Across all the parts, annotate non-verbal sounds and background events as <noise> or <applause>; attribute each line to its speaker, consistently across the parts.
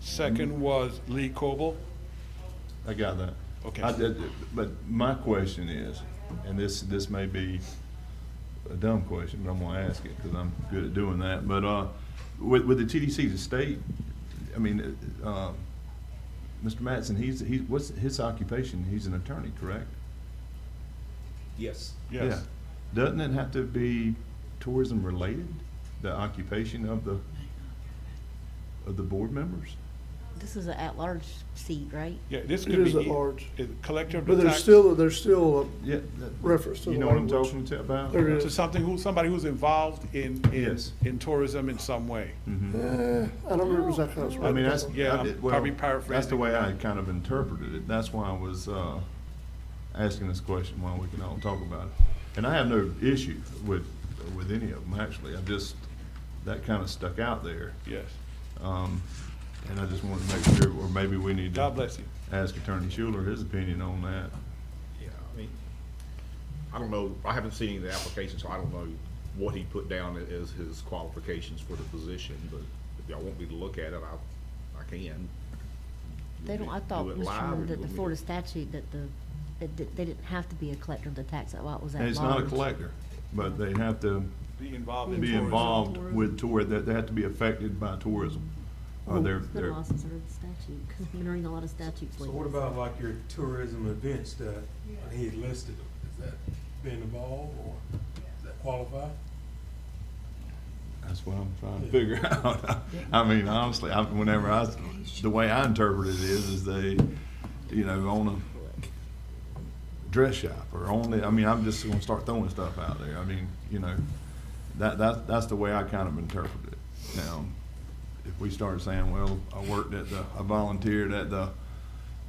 Speaker 1: second was Lee Coble.
Speaker 2: I got that.
Speaker 1: Okay.
Speaker 2: I did- But my question is, and this, this may be a dumb question, but I'm gonna ask it, because I'm good at doing that, but, uh, with, with the TDC, the state, I mean, uh, um, Mr. Mattson, he's, he's, what's his occupation? He's an attorney, correct?
Speaker 3: Yes.
Speaker 2: Yeah.
Speaker 1: Yes.
Speaker 2: Doesn't it have to be tourism related, the occupation of the, of the board members?
Speaker 4: This is an at-large seat, right?
Speaker 1: Yeah, this
Speaker 5: It
Speaker 1: could be.
Speaker 5: is at large.
Speaker 1: it- Collector of the
Speaker 5: But there's
Speaker 1: tax.
Speaker 5: still, there's still,
Speaker 2: Yeah. that-
Speaker 5: Reference to
Speaker 2: You
Speaker 5: the
Speaker 2: know what I'm
Speaker 5: language.
Speaker 2: talking to about?
Speaker 5: There
Speaker 1: To
Speaker 5: is.
Speaker 1: something who, somebody who's involved in, in,
Speaker 2: Yes. Hmm.
Speaker 1: in tourism in some way.
Speaker 2: Mm-hmm.
Speaker 5: a- eh, I don't remember exactly how it's
Speaker 2: I mean,
Speaker 5: written.
Speaker 2: that's,
Speaker 1: Yeah,
Speaker 2: I
Speaker 1: I'm
Speaker 2: did- well,
Speaker 1: probably
Speaker 2: that's the
Speaker 1: paraphrasing.
Speaker 2: way I kind of interpreted it. That's why I was, uh, asking this question, why we can all talk about it. And I have no issue with, with any of them, actually. I just, that kind of stuck out there.
Speaker 1: Yes.
Speaker 2: Um, and I just wanted to make sure, or maybe we need to.
Speaker 1: God bless you.
Speaker 2: Ask Attorney Schuler his opinion on that.
Speaker 3: Yeah, I mean, I don't know, I haven't seen any of the applications, so I don't know what he put down as his qualifications for the position, but if y'all want me to look at it, I, I can.
Speaker 4: They don't, I
Speaker 3: Do
Speaker 4: thought,
Speaker 3: it
Speaker 4: Mr.
Speaker 3: live, or
Speaker 4: Chairman, that
Speaker 3: you
Speaker 4: the
Speaker 3: want me
Speaker 4: Florida
Speaker 3: to-
Speaker 4: statute, that the, that di- they didn't have to be a collector of the tax, that why it was at
Speaker 2: And
Speaker 4: large.
Speaker 2: it's not a collector, but they have to
Speaker 1: Be involved in
Speaker 2: be
Speaker 1: tourism.
Speaker 2: involved with tour, that they have to be affected by tourism. Or they're,
Speaker 4: It's been a
Speaker 2: they're,
Speaker 4: while since I read the statute, 'cause I've been reading a lot of statutes
Speaker 6: So
Speaker 4: lately.
Speaker 6: what about like your tourism events that he listed? Is that being involved or does that qualify?
Speaker 2: that's what I'm trying to figure <laughs> out. I mean, honestly, I, whenever I, the way I interpret it is, is they, you know, own a dress shop or own the, I mean, I'm just gonna start throwing stuff out there. I mean, you know, that, that, that's the way I kind of interpret it. Now, if we start saying, well, I worked at the, I volunteered at the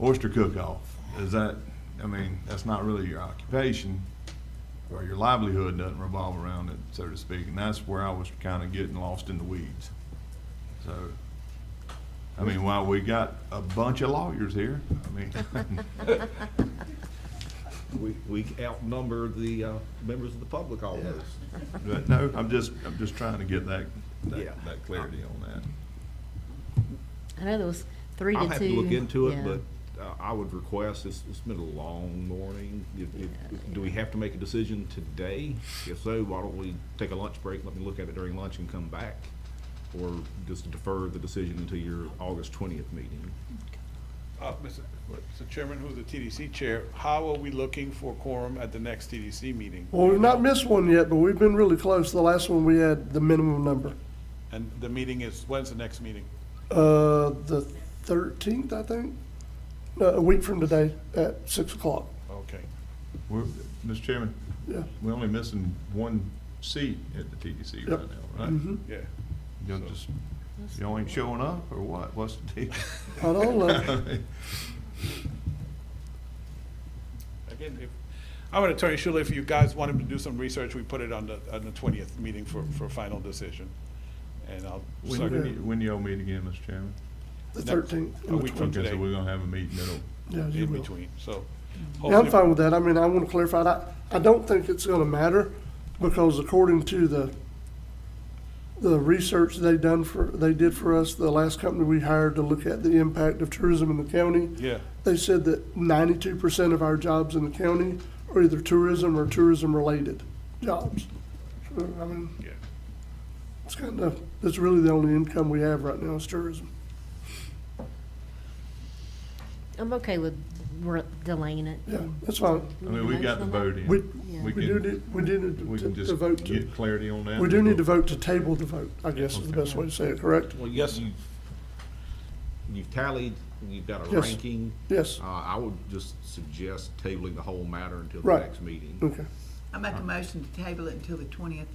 Speaker 2: oyster cook-off, is that, I mean, that's not really your occupation, or your livelihood doesn't revolve around it, so to speak, and that's where I was kind of getting lost in the weeds. So, I mean, while we got a bunch of lawyers here, I mean, <laughs>
Speaker 3: We, we outnumber the, uh, members of the public almost.
Speaker 2: but no, I'm just, I'm just trying to get that,
Speaker 3: Yeah.
Speaker 2: that, that clarity on that.
Speaker 4: I know there was three to two.
Speaker 3: I'll have to look into
Speaker 4: yeah.
Speaker 3: it, but uh, I would request, it's, it's been a long morning. If- if- Do we have to make a decision today? If so, why don't we take a lunch break, let me look at it during lunch and come back? Or just defer the decision until your August twentieth meeting?
Speaker 1: Uh, Mr. Mr. Chairman, who's the TDC chair, how are we looking for quorum at the next TDC meeting?
Speaker 5: Well, we've not missed one yet, but we've been really close. The last one, we had the minimum number.
Speaker 1: And the meeting is, when's the next meeting?
Speaker 5: Uh, the thirteenth, I think, No, a week from today at six o'clock.
Speaker 1: Okay.
Speaker 2: We're, Mr. Chairman,
Speaker 5: Yeah.
Speaker 2: we're only missing one seat at the TDC right
Speaker 5: Yep.
Speaker 2: now, right?
Speaker 5: Mhm.
Speaker 1: Yeah.
Speaker 2: Y'all just, y'all ain't showing up, or what? What's the deal?
Speaker 5: I
Speaker 2: <laughs>
Speaker 5: don't know.
Speaker 1: Again, if, I'm an attorney, Schuler, if you guys want him to do some research, we put it on the, on the twentieth meeting for, for final decision. And I'll.
Speaker 2: When,
Speaker 1: suck-
Speaker 2: when y- when y'all meet again, Mr. Chairman?
Speaker 5: The
Speaker 1: Next-
Speaker 5: thirteenth.
Speaker 1: A week from
Speaker 2: Okay,
Speaker 1: today,
Speaker 2: so we're gonna have a meeting that'll
Speaker 5: Yeah, you
Speaker 1: in
Speaker 5: will.
Speaker 1: between, so.
Speaker 5: Yeah, I'm
Speaker 1: hopefully-
Speaker 5: fine with that. I mean, I want to clarify, that. I don't think it's going to matter because according to the, the research they done for, they did for us, the last company we hired to look at the impact of tourism in the county,
Speaker 1: Yeah,
Speaker 5: they said that ninety-two percent of our jobs in the county are either tourism or tourism-related jobs. So, I mean,
Speaker 1: yeah.
Speaker 5: it's kind of, that's really the only income we have right now is tourism.
Speaker 4: I'm okay with re- delaying it.
Speaker 5: Yeah, that's fine.
Speaker 2: I mean, we got the vote in.
Speaker 5: We,
Speaker 4: Yeah.
Speaker 2: We
Speaker 5: we do,
Speaker 2: can,
Speaker 5: need- we do
Speaker 2: we
Speaker 5: need to
Speaker 2: can
Speaker 5: to
Speaker 2: just
Speaker 5: vote to.
Speaker 2: get clarity on that.
Speaker 5: We do need to vote to table the vote, I guess is the best way to say it, correct?
Speaker 3: Well,
Speaker 1: Yes.
Speaker 3: You've you've tallied, you've got a
Speaker 5: Yes.
Speaker 3: ranking.
Speaker 5: Yes.
Speaker 2: Ah,
Speaker 3: Uh, I would just suggest tabling the whole matter until the
Speaker 5: Right.
Speaker 3: next meeting.
Speaker 5: Okay,
Speaker 7: I make a motion to table it until the twentieth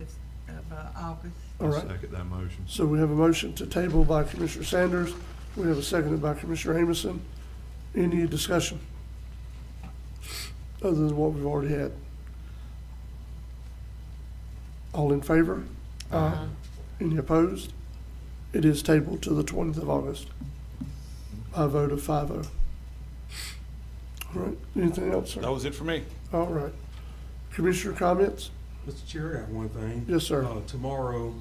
Speaker 7: of uh, August.
Speaker 5: all
Speaker 2: I'll
Speaker 5: right.
Speaker 2: Second that motion.
Speaker 5: So we have a motion to table by Commissioner Sanders. We have a seconded by Commissioner Amison. Any discussion? Other than what we've already had? All in favor? Aye. Any opposed? It is tabled to the twentieth of August by a vote of five oh. All right, anything else,
Speaker 1: That
Speaker 5: sir?
Speaker 1: was it for me.
Speaker 5: All right. Commissioner comments?
Speaker 6: Mr. Chair, I have one thing.
Speaker 5: Yes, sir.
Speaker 6: Uh, Tomorrow,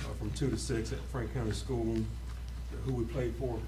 Speaker 6: uh, from two to six at Frank County School, who we played for